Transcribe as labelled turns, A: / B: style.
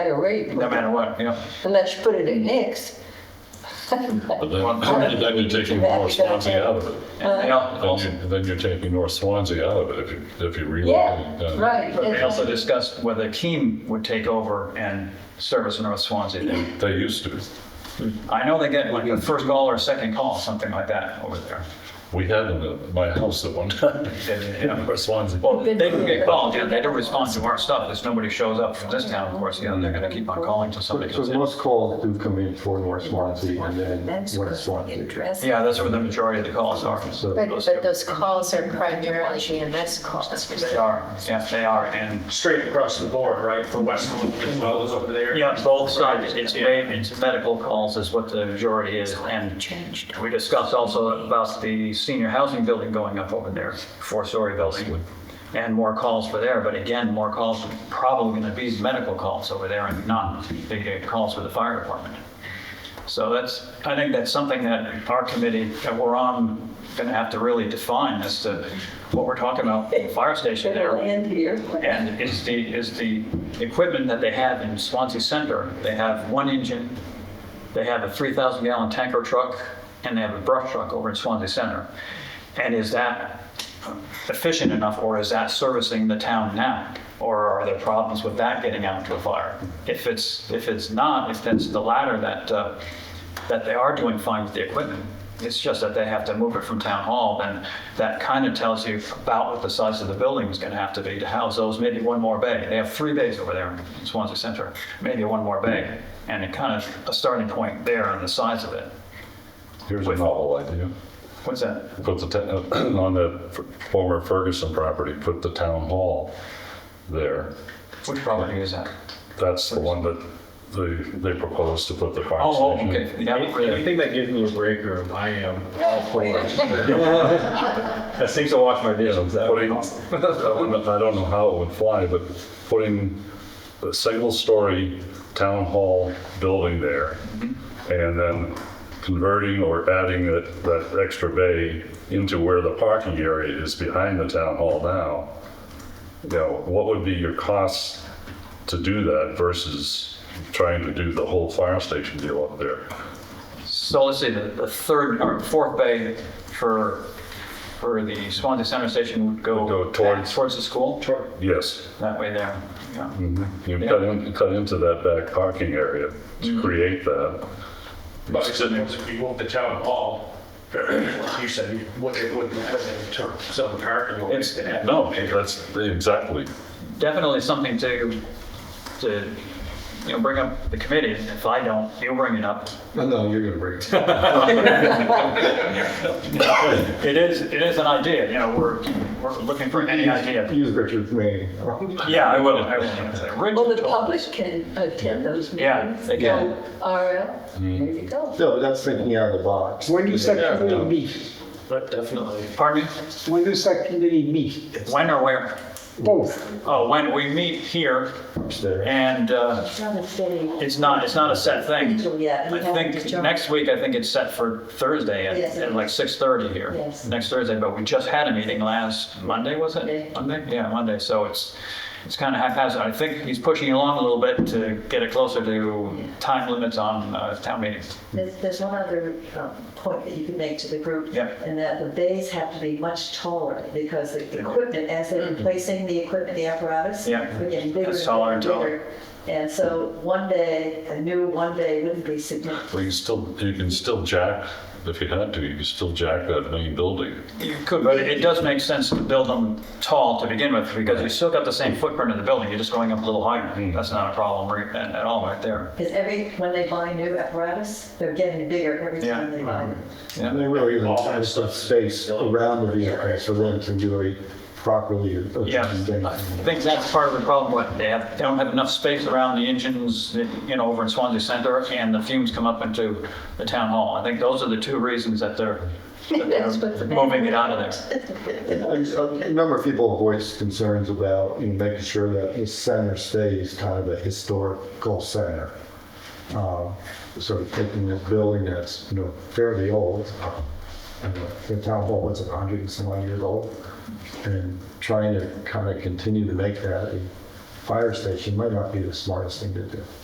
A: higher rate,
B: no matter what,
C: Uh,
B: yeah.
A: unless you put it at Nick's.
D: But
B: Well,
D: then, then you're taking
A: That
D: North
A: you gotta
D: Swansea out of it.
B: And they al-
D: Then
B: also,
D: you, then you're taking North Swansea out of it if you, if you
A: Yeah,
D: relocate. uh,
A: right.
B: they also discussed whether Keem would take over and service North Swansea. They-
D: They used to.
B: I know they get like a first call or a second call, something like that over there.
D: We had them at my house at one time,
B: They- yeah.
D: North Swansea.
B: Well, they can get called, yeah, they don't respond to our stuff, if nobody shows up from this town, of course, you know, they're gonna keep on calling till somebody
E: So
B: comes in.
E: most calls do come in for North Swansea and then West Swansea.
B: Yeah, that's where the majority of the calls are.
E: So-
C: But, but those calls are primarily GMS calls.
B: They are, yeah, they are, and, Mm-hmm.
F: straight across the board, right, for Westland as well as over there.
B: yeah, both sides, it's, ma- it's medical calls is what the majority is, and
G: Changed.
B: we discussed also about the senior housing building going up over there, four-story building, and more calls for there, but again, more calls, are probably gonna be medical calls over there and not the calls for the fire department. So that's, I think that's something that our committee, that we're on, gonna have to really define as to what we're talking about, the fire station there.
A: It'll end here.
B: And is the, is the equipment that they have in Swansea Center, they have one engine, they have a 3,000 gallon tanker truck, and they have a brush truck over in Swansea Center. And is that efficient enough, or is that servicing the town now? Or are there problems with that getting out to a fire? If it's, if it's not, if that's the latter, that, uh, that they are doing fine with the equipment, it's just that they have to move it from town hall, then that kind of tells you about what the size of the building is going to have to be to house those, maybe one more bay. They have three bays over there in Swansea Center, maybe one more bay. And it kind of, a starting point there on the size of it.
D: Here's a novel idea.
B: What's that?
D: Put the, ta- on the former Ferguson property, put the town hall there.
B: Which property is that?
D: That's the one that they, they proposed to put the fire
B: Oh,
D: station.
B: oh, okay.
F: I
B: Yeah,
F: think that gives me a break room. I am all for it. That seems to wash my dishes. That would
D: Putting, I don't know- I don't know how it would fly, but putting a single-story town hall building there and then converting or adding that, that extra bay into where the parking area is behind the town hall now. You know, what would be your costs to do that versus trying to do the whole fire station deal up there?
B: So let's see, the, the third or fourth bay for, for the Swansea Center Station would go.
D: Would go
B: back
D: towards-
B: Towards the school,
D: Yes,
B: that way there. Yeah.
D: you cut in, cut into that back parking area to create that.
F: But it's in there, if you want the town hall, you said, you would- it wouldn't have any term, some parking. lot.
B: It's-
D: No, that's exactly.
B: definitely something to, to, you know, bring up the committee. If I don't, you'll bring it up.
E: No, No, you're gonna bring it. up.
B: It is, it is an idea, you know, we're, we're looking for any idea.
E: Use Richard's name.
B: Yeah, I will, I will.
A: Well, the public can attend those meetings.
B: Yeah, they can.
A: So, RL,
E: Mm-hmm.
A: there you go.
E: No, that's thinking out of the box.
H: When does that committee meet?
F: But definitely.
B: Pardon me?
H: When does that committee meet?
B: When or where?
H: Both.
B: Oh, when we meet here and, uh,
G: Not a city.
B: It's not, it's not a set thing.
A: Yeah, we
B: I
A: have
B: think
A: to jump.
B: next week, I think it's set for Thursday
A: Yes.
B: at, at like 6:30 here.
A: Yes.
B: Next Thursday, but we just had a meeting last Monday, was
A: Monday.
B: it? Monday? Yeah, Monday. So it's, it's kind of haphazard. I think he's pushing along a little bit to get it closer to time limits on uh, town meetings.
G: There's, there's one other um, point that you can make to the group.
B: Yeah.
G: And that the bays have to be much taller because the equipment, as they're replacing the equipment, the apparatus.
B: Yeah.
G: They're getting bigger.
B: It's taller and taller.
G: bigger. And so one day, a new one day wouldn't be significant.
D: Well, you still, you can still jack, if you had to, you can still jack that main building.
B: You could, but it does make sense to build them tall to begin with because you still got the same footprint of the building. You're just going up a little higher. That's not a problem right- at at all right there.
G: Because every, when they buy new apparatus, they're getting bigger every
B: Yeah.
G: time they buy them.
E: And they really even have some space around the vehicle for them to really properly. uh,
B: Yeah, I think that's part of the problem, what, they have, they don't have enough space around the engines, you know, over in Swansea Center, and the fumes come up into the town hall. I think those are the two reasons that they're, that
A: That's what
B: they're
A: the-
B: moving it out of there.
E: A a number of people voiced concerns about you know, making sure that the center stays kind of a historical center. Um, Sort of taking this building that's, you know, fairly old, and the town hall was 100 and some odd years old, and trying to kind of continue to make that a fire station might not be the smartest thing to do.